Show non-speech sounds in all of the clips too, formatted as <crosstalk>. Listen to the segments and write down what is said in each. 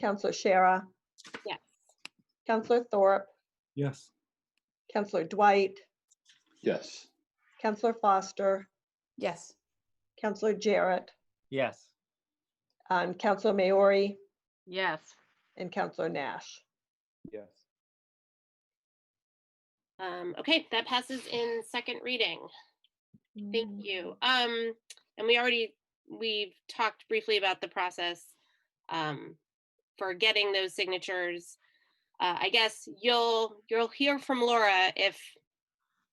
Counselor Shara, Yes. Counselor Thorpe, Yes. Counselor Dwight, yes, Counselor Foster, Yes. Counselor Jarrett, Yes. um, Counselor Maori, Yes. and Counselor Nash. Yes. Um, okay, that passes in second reading. Thank you. Um, and we already, we've talked briefly about the process um, for getting those signatures. Uh, I guess you'll, you'll hear from Laura if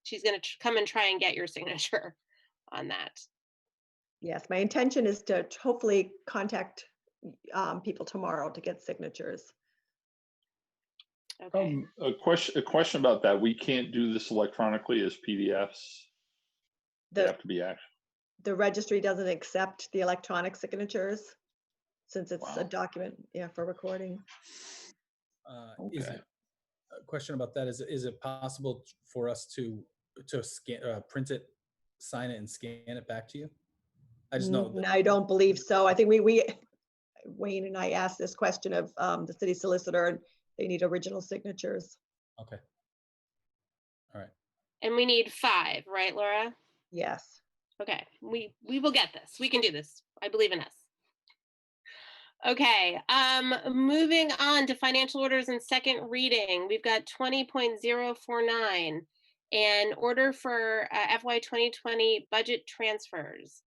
she's gonna tr- come and try and get your signature <laughs> on that. Yes, my intention is to t- hopefully contact um, people tomorrow to get signatures. Okay, um, a question, a question about that, we can't do this electronically as PDFs, they The, have to be action. the registry doesn't accept the electronic signatures since it's a Wow. document, yeah, for recording. Uh, Is Okay. it, a question about that, is, it- is it possible t- for us to, to scan, uh, print it, sign it and scan it back to you? I just know, Mm, that- I don't believe so. I think we, we, Wayne and I asked this question of um, the city solicitor, and they need original signatures. okay, and we need five, right, Laura? Yes. Okay, we we will get this. We can do this. I believe in us. Okay, um, moving on to financial orders and second reading, we've got twenty point zero four nine. An order for uh, FY twenty twenty budget transfers.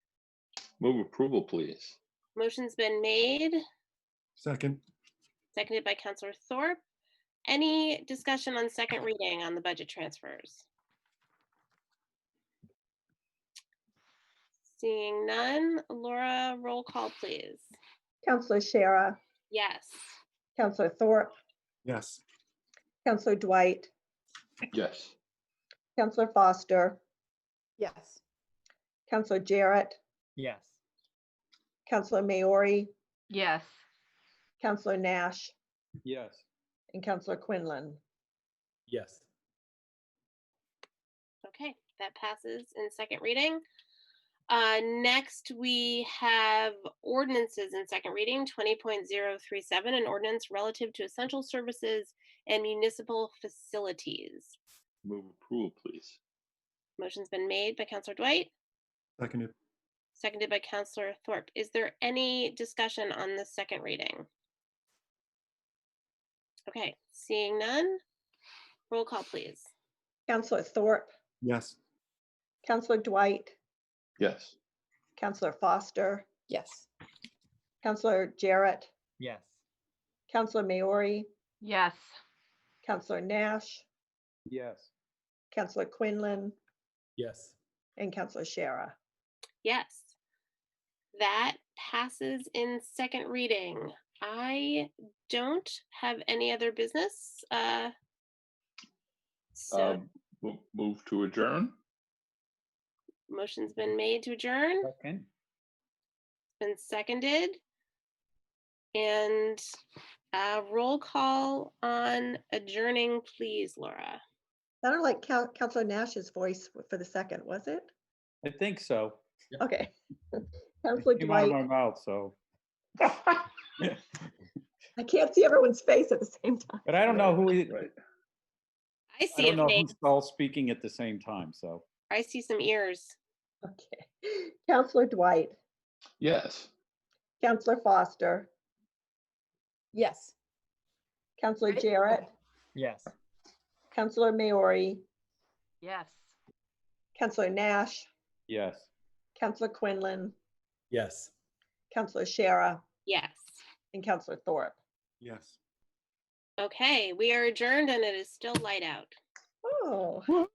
Move approval, please. Motion's been made, Second. seconded by Counselor Thorpe. Any discussion on second reading on the budget transfers? Seeing none, Laura, roll call, please. Counselor Shara, Yes. Counselor Thorpe, Yes. Counselor Dwight, Yes, Counselor Foster, Yes. Counselor Jarrett, Yes. Counselor Maori, yes, Counselor Nash, Yes. and Counselor Quinlan. yes. Okay, that passes in second reading. Uh, next, we have ordinances in second reading, twenty point zero three seven, an ordinance relative to essential services and municipal facilities. move approval, please. Motion's been made by Counselor Dwight, Seconded. seconded by Counselor Thorpe. Is there any discussion on the second reading? Okay, seeing none, roll call, please. Counselor Thorpe, Yes. Counselor Dwight, Yes, Counselor Foster, Yes. Counselor Jarrett, Yes. Counselor Maori, yes, Counselor Nash, Yes. Counselor Quinlan, Yes. and Counselor Shara. Yes. That passes in second reading. I don't have any other business. uh, So um, mo- move to adjourn? motion's been made to adjourn, Second. been seconded. And uh, roll call on adjourning, please, Laura. Sounded like Coun- Counselor Nash's voice for the second, was it? I think so. Okay. <laughs> Counselor Came out of my Dwight, mouth, so. I can't see everyone's face at the same time. <laughs> But I don't know who, it- Right. I I see a don't know face. who's all speaking at the same time, so. I see some ears. Okay. Counselor Dwight, Yes, Counselor Foster, Yes. Counselor Right? Jarrett, Yes. Counselor Maori, yes. Counselor Nash, Yes. Counselor Quinlan, Yes. Counselor Shara, Yes. and Counselor Thorpe. Yes. Okay, we are adjourned and it is still light out. Oh.